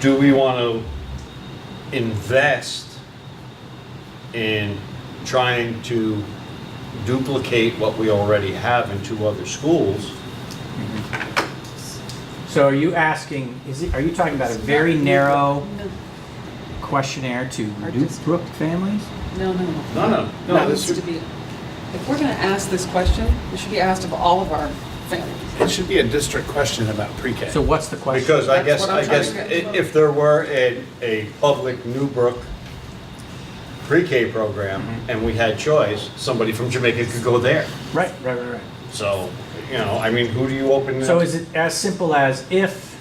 do we want to invest in trying to duplicate what we already have in two other schools? So are you asking, is it, are you talking about a very narrow questionnaire to Our district. Newbrook families? No, no, no. No, no, That no, needs this to would, be, if we're going to ask this question, it should be asked of all of our families. It should be a district question about pre-K. So what's the question? because I That's guess, what I'm I trying guess, to i- get to. if there were a, a public Newbrook pre-K program Mm-hmm. and we had choice, somebody from Jamaica could go there. Right, right, right, right. So, you know, I mean, who do you open? So up? is it as simple as if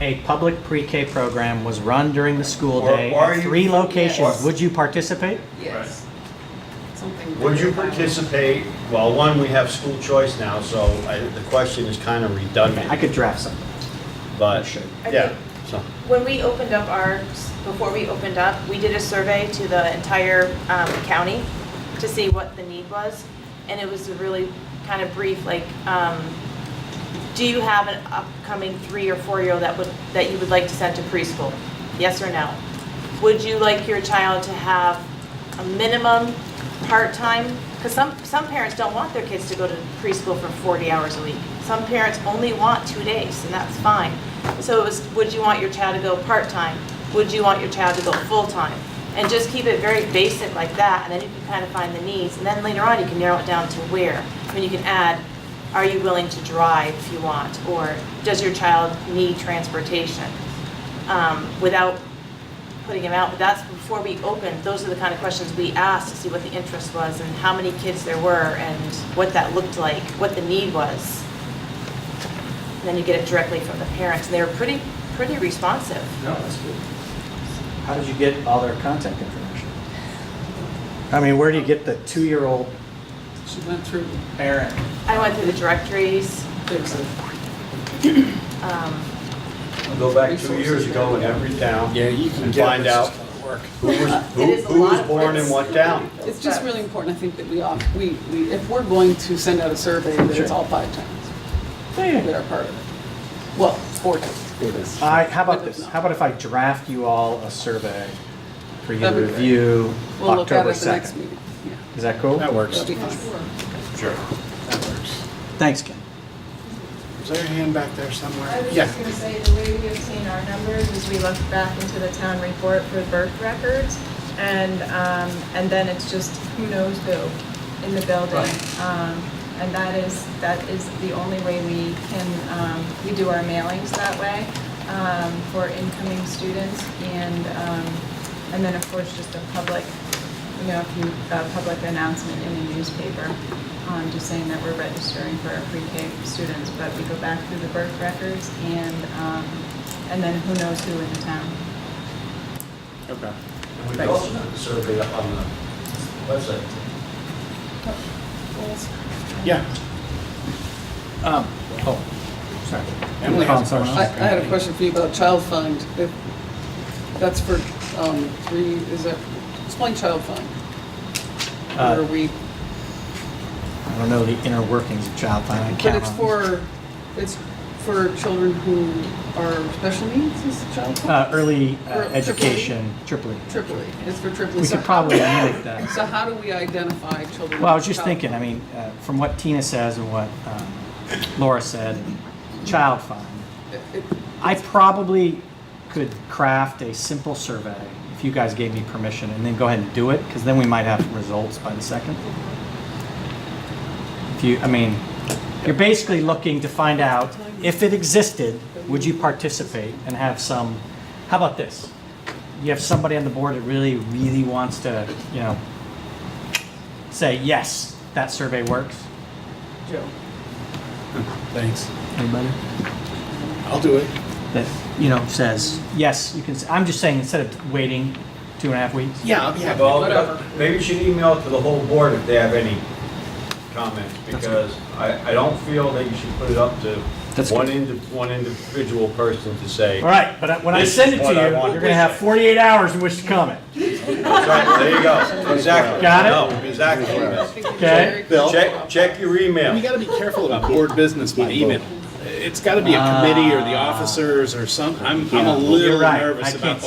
a public pre-K program was run during the school Or- day or you- at three locations, Yes. would you participate? Yes. Something. Would you very participate, well, one, we have school choice now, so I- the question is kind of I redundant, could draft something. but, Sure. yeah, so. When we opened up our, before we opened up, we did a survey to the entire um, county to see what the need was. And it was a really kind of brief, like, um, do you have an upcoming three or four-year-old that would, that you would like to send to preschool? Yes or no? Would you like your child to have a minimum part-time? Because some, some parents don't want their kids to go to preschool for 40 hours a week. Some parents only want two days, and that's fine. So it was, would you want your child to go part-time? Would you want your child to go full-time? And just keep it very basic like that, and then you can kind of find the needs. And then later on, you can narrow it down to where. I mean, you can add, are you willing to drive if you want? Or does your child need transportation? Um, Without putting them out, but that's before we opened, those are the kind of questions we asked to see what the interest was and how many kids there were and what that looked like, what the need was. And Then you get it directly from the parents, and they were pretty, pretty responsive. No, that's good. How did you get all their contact information? I mean, where do you get the two-year-old valuable. She went through, parent? I went through the directories. there's a, um, Go back two years ago in every town, Yeah, you can And get find this out. is gonna work. who was, It who is a who was lot of born in words. what town. it's just really important, I think, that we, all- we, we if we're going to send out a survey, that it's Sure. all five towns that are part of it. Well, four towns. because- I, how about But if this? not, How about if I draft you all a survey for you to That'd be great. review We'll look at it October at the next 2nd? meeting. Yeah, Is that cool? That works. that'll be fine. Sure. That works. Thanks, Ken. Is there a hand back there I somewhere? was Yeah. just gonna say, the way we obtain our numbers is we look back into the town report for birth records, and, um, and then it's just who knows who in the building. Um, and that is, that is the only way we can, um, we do our mailings that way, um, for incoming students, and, um, and then of course, just a public, you know, if you, a public announcement in a newspaper, um, just saying that we're registering for our pre-K students, but we go back through the birth records and, um, and then who knows who in the town. Okay. And we also did the survey up on the website. Yeah. Um, oh, sorry. Emily Calling has a someone I, I else? question. had a question for you about child find. If- That's for, um, three, is that, explain child find. Uh, Where we, I don't know the inner workings of child find. I but can't it's remember. for, it's for children who are special needs, is child Uh, find? early uh, Or triple E? education, triple E. Triple E, it's for triple E. We So could how- probably mimic that. So how do we identify children? Well, I was just child- thinking, I mean, uh, from what Tina says and what um, Laura said, child find, It- I probably could craft a simple survey if you guys gave me permission and then go ahead and do it, because then we might have results by the second. If you, I mean, you're basically looking to find out if it existed, would you participate and have some, how about this? You have somebody on the board that really, really wants to, you know, say, yes, that survey works. Joe. Thanks. Anybody? I'll do it. That, you know, says, yes, you can, s- I'm just saying, instead of waiting two and a half weeks, Yeah, I'll be happy. Well, maybe you should email it to the whole board if they have any comments, because I, I don't feel that you should put it up to That's one good. indi, one individual person to say. All right, but I- when I This send is it to what you, I you're want. gonna have 48 hours in which to comment, Right, There you go, exactly. Got it? No, Exactly. okay? Check, check your email. We gotta be careful about board business by email. It's got to be a committee or the officers or some, I'm, I'm a Yeah, little you're right. I nervous about can't the